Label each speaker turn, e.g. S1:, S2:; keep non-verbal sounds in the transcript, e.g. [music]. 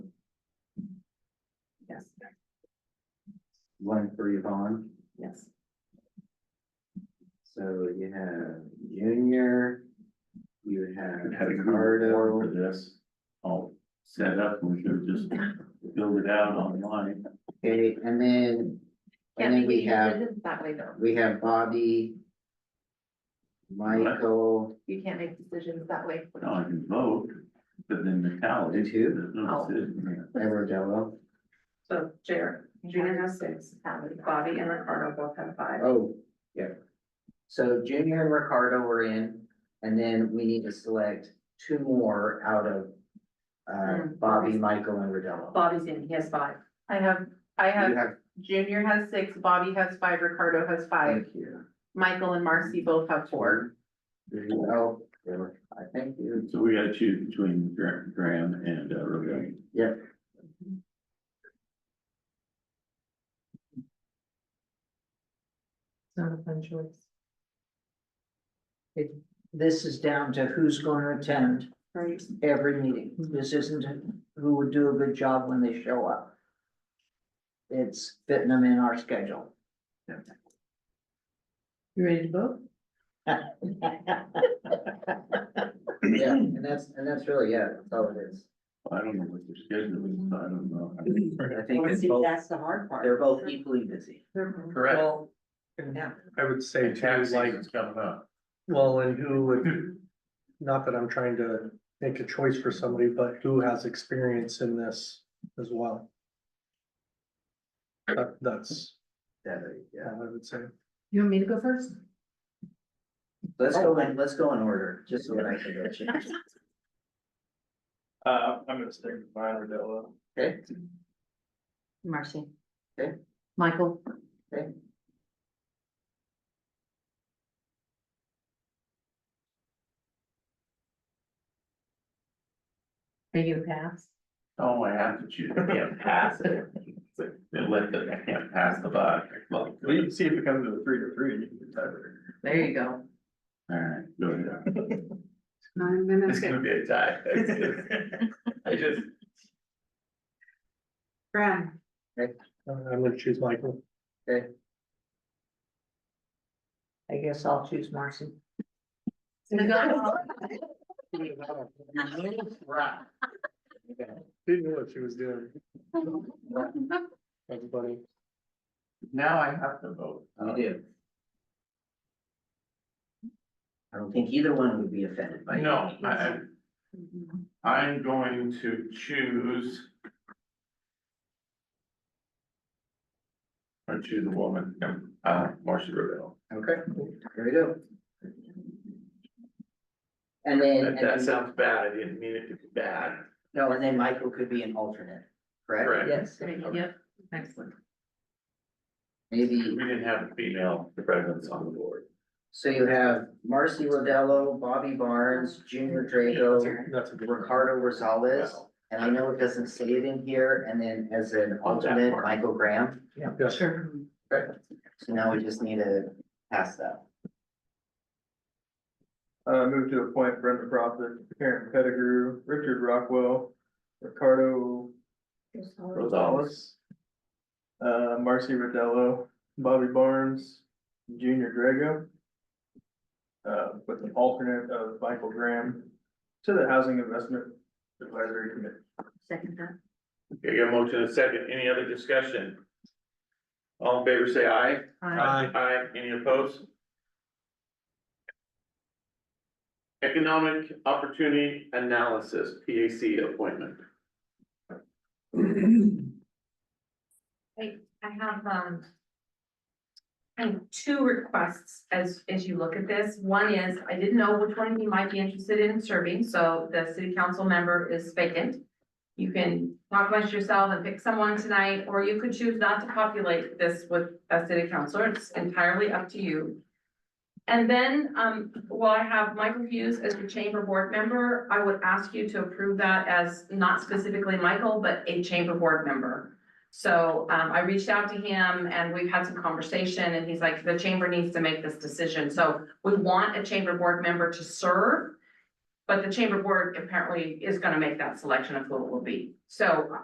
S1: Yes,
S2: one for Yvonne.
S1: yes.
S2: So you have Junior, you have
S3: Had a good
S2: Ricardo.
S3: warrant for this, all set up, we should just build it out online.
S2: Okay, and then, and then we have,
S1: decisions That way though,
S2: we have Bobby. Michael,
S1: you can't make decisions that way.
S3: Now I can vote, but then the tally.
S2: You too?
S3: there's no
S1: Oh.
S3: decision.
S2: Everdello,
S4: So Jer, Junior has six, um,
S1: Tally.
S4: Bobby and Ricardo both have five.
S2: oh, yeah. So Junior and Ricardo were in, and then we need to select two more out of. Uh,
S4: Mm.
S2: Bobby, Michael and Rodello.
S4: Bobby's in, he has five.
S5: I have, I
S2: You
S5: have,
S2: have,
S5: Junior has six, Bobby has five, Ricardo has five,
S2: thank you.
S5: Michael and Marcy both have four.
S2: There you go, there were, I thank you.
S3: So we gotta choose between Gra- Graham and uh, Rogan.
S6: Not a fun choice.
S7: this is down to who's gonna attend
S1: Right.
S7: every meeting. This isn't who would do a good job when they show up. It's fitting them in our schedule.
S6: You ready to vote?
S2: Yeah, and that's, and that's really, yeah, that's all it is.
S3: I don't know what their schedule is, so I don't know.
S2: I think it's both,
S7: that's the hard
S2: they're both equally busy.
S4: Mm-hmm.
S8: Correct.
S7: Well, yeah,
S8: I would say too, like,
S3: coming up.
S8: well, and who would, not that I'm trying to make a choice for somebody, but who has experience in this as well? That, that's,
S2: Yeah,
S8: all
S2: yeah.
S8: I would say.
S6: You want me to go first?
S2: Let's go in, let's go in order, just so that I can get you.
S8: Uh, I'm gonna stick with mine, Rodella.
S2: Okay,
S1: Marcy.
S2: Okay.
S1: Michael.
S2: Okay.
S1: Are you a pass?
S3: Oh, I have to choose, I can't pass it. They let the, I can't pass the buck. Well, we can see if it comes to a three to three.
S6: There you go.
S3: Alright, go ahead.
S4: Nine
S3: It's
S4: minutes.
S3: gonna be a
S9: [laughs]
S3: tie. I just.
S4: Graham,
S8: I'm gonna choose Michael.
S7: I guess I'll choose Marcy.
S8: Didn't know what she was doing. That's funny.
S3: Now I have to vote.
S2: You do. I don't think either one would be offended by.
S9: No, I, I'm going to choose. I choose a woman, um, uh, Marcia Rebel.
S2: Okay, there we go. And then,
S9: That,
S2: and
S9: that
S2: then,
S9: sounds bad, I didn't mean it to be bad.
S2: no, and then Michael could be an alternate, correct?
S9: Correct.
S2: Yes.
S6: Yep, excellent.
S2: Maybe,
S9: We didn't have a female presence on the board.
S2: so you have Marcy Rodello, Bobby Barnes, Junior Drago,
S8: That's a good one.
S2: Ricardo Rosales.
S9: Well,
S2: And I know it doesn't say it in here, and then as an
S9: On that
S2: alternate,
S9: part.
S2: Michael Graham,
S8: Yes.
S6: Sure.
S2: so now we just need to pass that.
S10: Uh, move to appoint Brenda Prophet, Karen Pettigrew, Richard Rockwell, Ricardo Rosales. Uh, Marcy Rodello, Bobby Barnes, Junior Drago. Uh, with an alternate of Michael Graham to the Housing Investment Advisory Committee.
S1: Second that.
S9: Okay, got a motion and a second, any other discussion? All in favor, say aye.
S8: Aye.
S9: Aye, any opposed? Economic Opportunity Analysis, PAC appointment.
S4: I have, um, I have two requests as, as you look at this. One is, I didn't know which one you might be interested in serving, so the city council member is vacant. You can talk amongst yourself and pick someone tonight, or you could choose not to populate this with a city councilor. It's entirely up to you. And then, um, while I have Michael Hughes as the chamber board member, I would ask you to approve that as not specifically Michael, but a chamber board member. So um, I reached out to him and we've had some conversation and he's like, the chamber needs to make this decision. So we want a chamber board member to serve. But the chamber board apparently is gonna make that selection of who it will be. So